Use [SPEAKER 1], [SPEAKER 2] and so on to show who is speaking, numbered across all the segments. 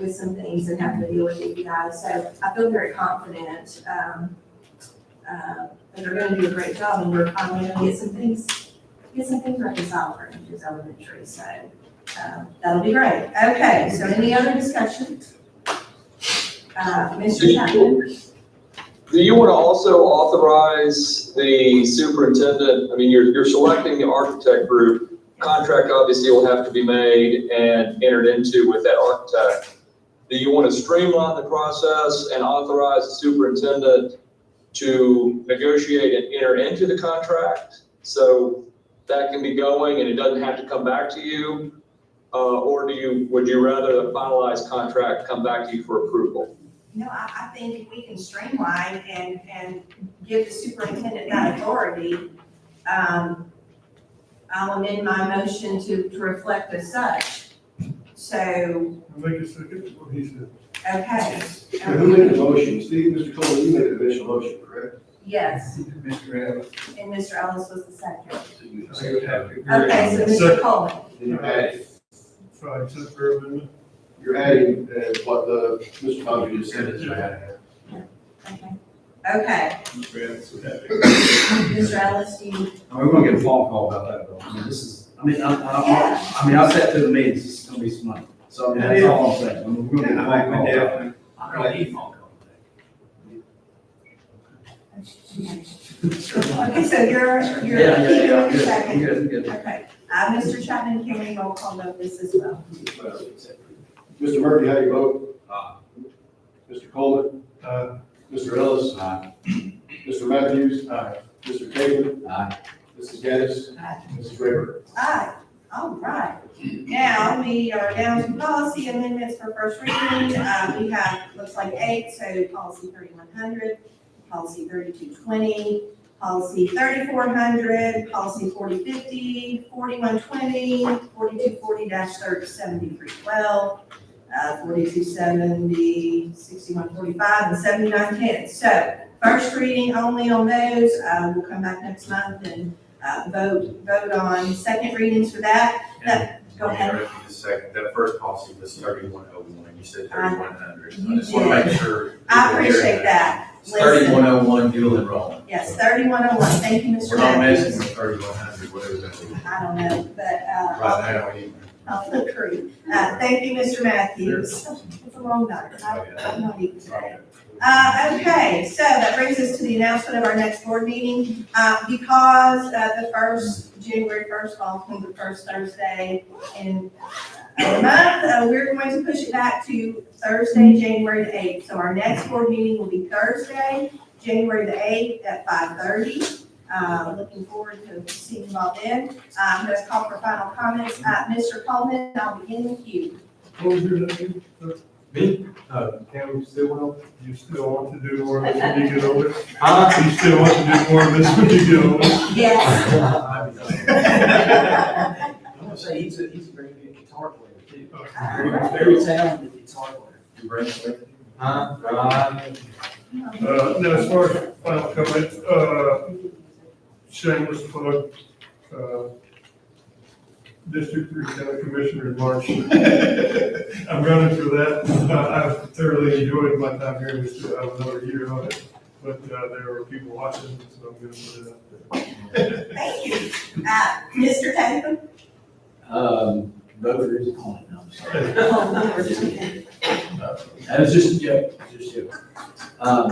[SPEAKER 1] with some things and having to deal with you guys. So I feel very confident, um, uh, that they're gonna do a great job and we're finally gonna get some things, get some things reconciled for Hinges Elementary, so, um, that'll be great. Okay, so any other discussion? Uh, Mr. Chapman?
[SPEAKER 2] Do you want to also authorize the superintendent, I mean, you're, you're selecting the architect group. Contract obviously will have to be made and entered into with that architect. Do you want to streamline the process and authorize the superintendent to negotiate and enter into the contract? So that can be going and it doesn't have to come back to you? Uh, or do you, would you rather the finalized contract come back to you for approval?
[SPEAKER 1] No, I, I think we can streamline and, and give the superintendent that authority. Um, I'll amend my motion to, to reflect as such. So,
[SPEAKER 3] I make a second, what he said.
[SPEAKER 1] okay,
[SPEAKER 4] Now, Who made the motion? Steve, Mr. Cole, you made the initial motion, correct?
[SPEAKER 1] yes,
[SPEAKER 3] Mr. Evans.
[SPEAKER 1] and Mr. Ellis was the second.
[SPEAKER 3] So you have to.
[SPEAKER 1] Okay, so Mr. Coleman,
[SPEAKER 4] Then you add,
[SPEAKER 3] Sorry, except for amendment.
[SPEAKER 4] you're adding uh, what the, Mr. Bobby just said. is added.
[SPEAKER 1] okay, okay,
[SPEAKER 3] Mr. Evans would have
[SPEAKER 1] Mr. Ellis, do you,
[SPEAKER 5] I mean, we're gonna get a phone call about that, though. I mean, this is, I mean, I, I, I- I mean, I sat through the meetings, this is gonna be some money. So, I mean, that's all I'm saying, I mean, we're gonna get a phone call. about that. I don't need phone call.
[SPEAKER 1] okay, so you're, you're,
[SPEAKER 5] Yeah, yeah, yeah,
[SPEAKER 1] you're
[SPEAKER 5] I'm
[SPEAKER 1] the
[SPEAKER 5] good.
[SPEAKER 1] second.
[SPEAKER 5] I'm good, I'm good.
[SPEAKER 1] Okay, uh, Mr. Chapman, can we roll call vote this as well?
[SPEAKER 4] Mr. Murphy, how do you vote?
[SPEAKER 5] Aye.
[SPEAKER 4] Mr. Coleman,
[SPEAKER 3] Uh,
[SPEAKER 4] Mr. Ellis,
[SPEAKER 5] Aye.
[SPEAKER 4] Mr. Matthews,
[SPEAKER 3] aye.
[SPEAKER 4] Mr. Taylor,
[SPEAKER 5] Aye.
[SPEAKER 4] Mrs. Gaddis,
[SPEAKER 1] Aye.
[SPEAKER 4] Mrs. Rayburn.
[SPEAKER 1] Aye, all right. Now, we are down to policy amendments for first reading. Uh, we have, looks like eight, so policy thirty-one hundred, policy thirty-two twenty, policy thirty-four hundred, policy 4050, 4120, 4240 thirty seventy-three twelve, uh, 4270, 6145, and seventy-nine ten. So first reading only on those. Uh, we'll come back next month and, uh, vote, vote on second readings for that. That, go ahead.
[SPEAKER 6] Mayor, if you just second, that first policy was thirty-one oh one, you said
[SPEAKER 1] I-
[SPEAKER 6] thirty-one hundred, so
[SPEAKER 1] you
[SPEAKER 6] I just wanna
[SPEAKER 1] did.
[SPEAKER 6] make sure.
[SPEAKER 1] I appreciate that. Listen,
[SPEAKER 6] Thirty-one oh one dual enrollment.
[SPEAKER 1] yes, thirty-one oh one. Thank you,
[SPEAKER 6] We're
[SPEAKER 1] Mr.
[SPEAKER 6] not messing
[SPEAKER 1] Matthews.
[SPEAKER 6] with thirty-one hundred, whatever that is.
[SPEAKER 1] I don't know, but, uh, I'll-
[SPEAKER 6] Right now, we-
[SPEAKER 1] I'll look through. Uh, thank you, Mr. Matthews. It's a long night. I- I'm not even tired. Uh, okay, so that brings us to the announcement of our next board meeting. Uh, because, uh, the first, January first falls on the first Thursday in a month, uh, we're going to push it back to Thursday, January the eighth. So our next board meeting will be Thursday, January the eighth at five thirty. Uh, looking forward to seeing you all then. Uh, let's call for final comments. Uh, Mr. Coleman, I'll begin with you.
[SPEAKER 3] What was your name? Me? Uh, Cam Stillwell. You still want to do more of this when you get older?
[SPEAKER 5] Huh?
[SPEAKER 3] You still want to do more of this when you get older?
[SPEAKER 1] Yes.
[SPEAKER 5] I'm gonna say, he's a, he's a very good guitar player, too.
[SPEAKER 3] Uh,
[SPEAKER 5] Very talented guitar player.
[SPEAKER 6] You bring it up.
[SPEAKER 5] Huh?
[SPEAKER 3] no, Uh, as far as final comments, uh, shameless plug, uh, District Three County Commissioner March. I'm running for that. I- I've thoroughly enjoyed my time here. We still have another year on it, but, uh, there are people watching, so I'm gonna put it out there.
[SPEAKER 1] Thank you. Uh, Mr. Tatum?
[SPEAKER 5] Um, voter is calling, I'm sorry.
[SPEAKER 1] Oh,
[SPEAKER 5] That was just a joke, just a joke. Um,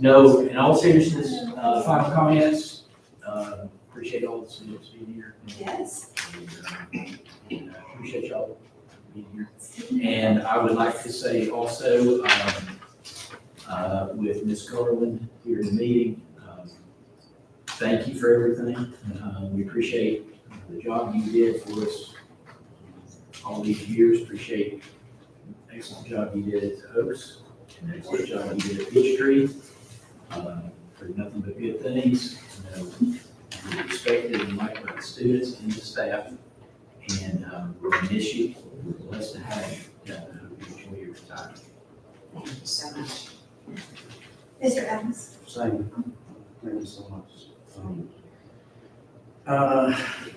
[SPEAKER 5] no, in all seriousness, uh, final comments, uh, appreciate all the students being here.
[SPEAKER 1] Yes.
[SPEAKER 5] And, uh, Appreciate y'all being here. And I would like to say also, um, uh, with Ms. Garland here in the meeting, um, thank you for everything. Um, we appreciate the job you did for us all these years. Appreciate the excellent job you did at Oaks, and the excellent job you did at Peachtree. Um, Heard nothing but good things, you know, you respected and liked by the students and the staff. And um, we're gonna miss you. We're blessed to have you. Yeah, I hope you enjoy your time.
[SPEAKER 1] Thank you so much. Mr. Evans?
[SPEAKER 5] Same. Thank you so much. Um, Uh,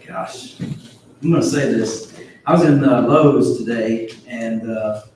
[SPEAKER 5] gosh, I'm gonna say this. I was in uh, Lowe's today and uh,